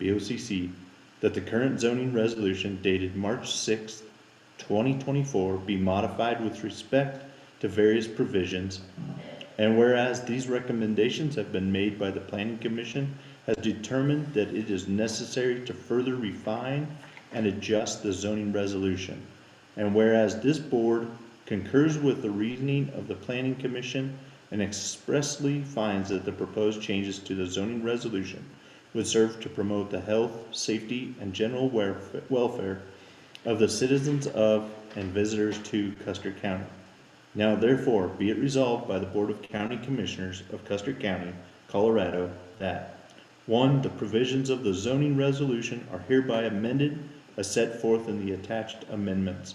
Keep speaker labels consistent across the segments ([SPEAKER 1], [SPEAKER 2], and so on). [SPEAKER 1] BOCC, that the current zoning resolution dated March sixth, twenty twenty-four be modified with respect to various provisions. And whereas these recommendations have been made by the planning commission, has determined that it is necessary to further refine and adjust the zoning resolution. And whereas this board concurs with the reasoning of the planning commission and expressly finds that the proposed changes to the zoning resolution would serve to promote the health, safety, and general welfare, welfare of the citizens of and visitors to Custer County. Now therefore be it resolved by the Board of County Commissioners of Custer County, Colorado, that one, the provisions of the zoning resolution are hereby amended as set forth in the attached amendments,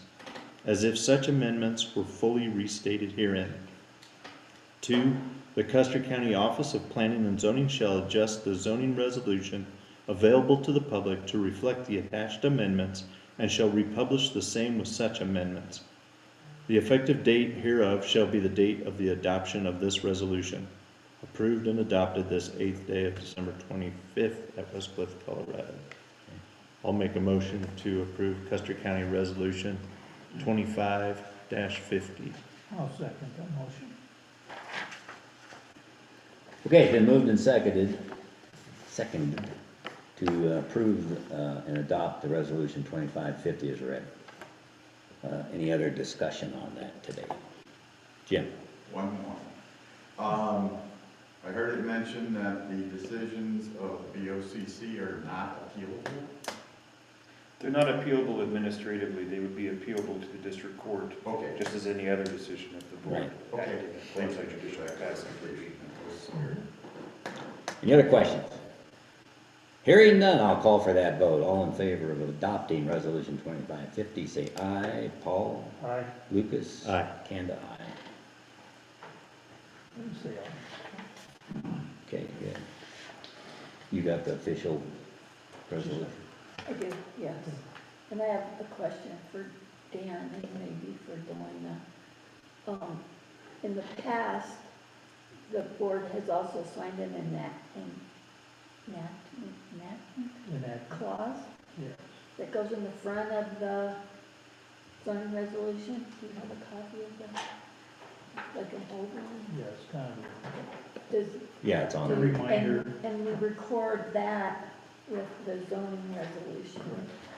[SPEAKER 1] as if such amendments were fully restated herein. Two, the Custer County Office of Planning and Zoning shall adjust the zoning resolution available to the public to reflect the attached amendments and shall republish the same with such amendments. The effective date hereof shall be the date of the adoption of this resolution, approved and adopted this eighth day of December twenty-fifth at West Cliff, Colorado. I'll make a motion to approve Custer County Resolution twenty-five fifty.
[SPEAKER 2] I'll second that motion.
[SPEAKER 3] Okay, it's been moved and seconded, seconded, to uh, approve uh, and adopt the resolution twenty-five fifty is read. Uh, Any other discussion on that today? Jim?
[SPEAKER 4] One more. Um, I heard it mentioned that the decisions of BOCC are not appealable.
[SPEAKER 5] They're not appealable administratively, they would be appealable to the district court,
[SPEAKER 4] Okay,
[SPEAKER 5] just as any other decision of the board.
[SPEAKER 4] Right. Okay.
[SPEAKER 5] Claims like judicial capacity.
[SPEAKER 3] Any other questions? Hearing none, I'll call for that vote. All in favor of adopting resolution twenty-five fifty, say aye. Paul?
[SPEAKER 2] Aye.
[SPEAKER 3] Lucas?
[SPEAKER 1] Aye.
[SPEAKER 3] Kanda, aye.
[SPEAKER 2] Let me see. I'll-
[SPEAKER 3] Okay, good. You got the official resolution?
[SPEAKER 6] I do, yes. And I have a question for Dan and maybe for Delana. Um, in the past, the board has also signed an enacting, enactment, enactment
[SPEAKER 2] Enact,
[SPEAKER 6] clause
[SPEAKER 2] yes.
[SPEAKER 6] that goes in the front of the zoning resolution. Do you have a copy of that? Like an old one?
[SPEAKER 2] Yes, kind of.
[SPEAKER 6] Does,
[SPEAKER 3] Yeah, it's on
[SPEAKER 2] The
[SPEAKER 3] there.
[SPEAKER 2] reminder.
[SPEAKER 6] and, and we record that with the zoning resolution.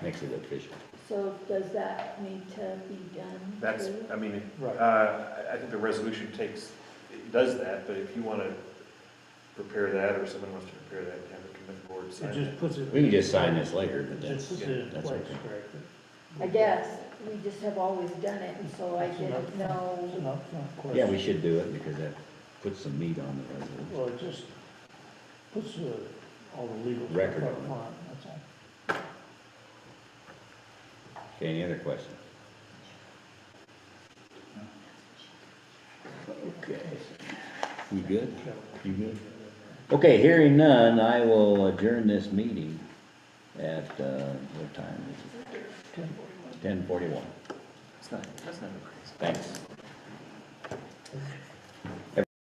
[SPEAKER 3] Makes it official.
[SPEAKER 6] So does that need to be done?
[SPEAKER 5] That's,
[SPEAKER 6] too?
[SPEAKER 5] I mean, uh,
[SPEAKER 2] Right.
[SPEAKER 5] I I think the resolution takes, it does that, but if you want to prepare that, or someone wants to prepare that, have it come to the board, sign
[SPEAKER 2] It
[SPEAKER 5] it.
[SPEAKER 2] just puts it.
[SPEAKER 3] We can just sign this later,
[SPEAKER 2] Just
[SPEAKER 3] but that's,
[SPEAKER 2] puts it in
[SPEAKER 3] that's
[SPEAKER 2] place,
[SPEAKER 3] okay.
[SPEAKER 2] correct?
[SPEAKER 6] I guess, we just have always done it, and so I
[SPEAKER 2] It's an
[SPEAKER 6] didn't
[SPEAKER 2] upfront- It's an
[SPEAKER 6] know.
[SPEAKER 2] upfront question.
[SPEAKER 3] Yeah, we should do it because that puts some meat on the resolution.
[SPEAKER 2] Well, it just puts uh, all the legal stuff
[SPEAKER 3] Record
[SPEAKER 2] up
[SPEAKER 3] on it.
[SPEAKER 2] front, that's all.
[SPEAKER 3] Okay, any other questions? Okay. You good? You good? Okay, hearing none, I will adjourn this meeting at, uh, what time is it? Ten forty-one.
[SPEAKER 5] It's not, that's not crazy.
[SPEAKER 3] Thanks.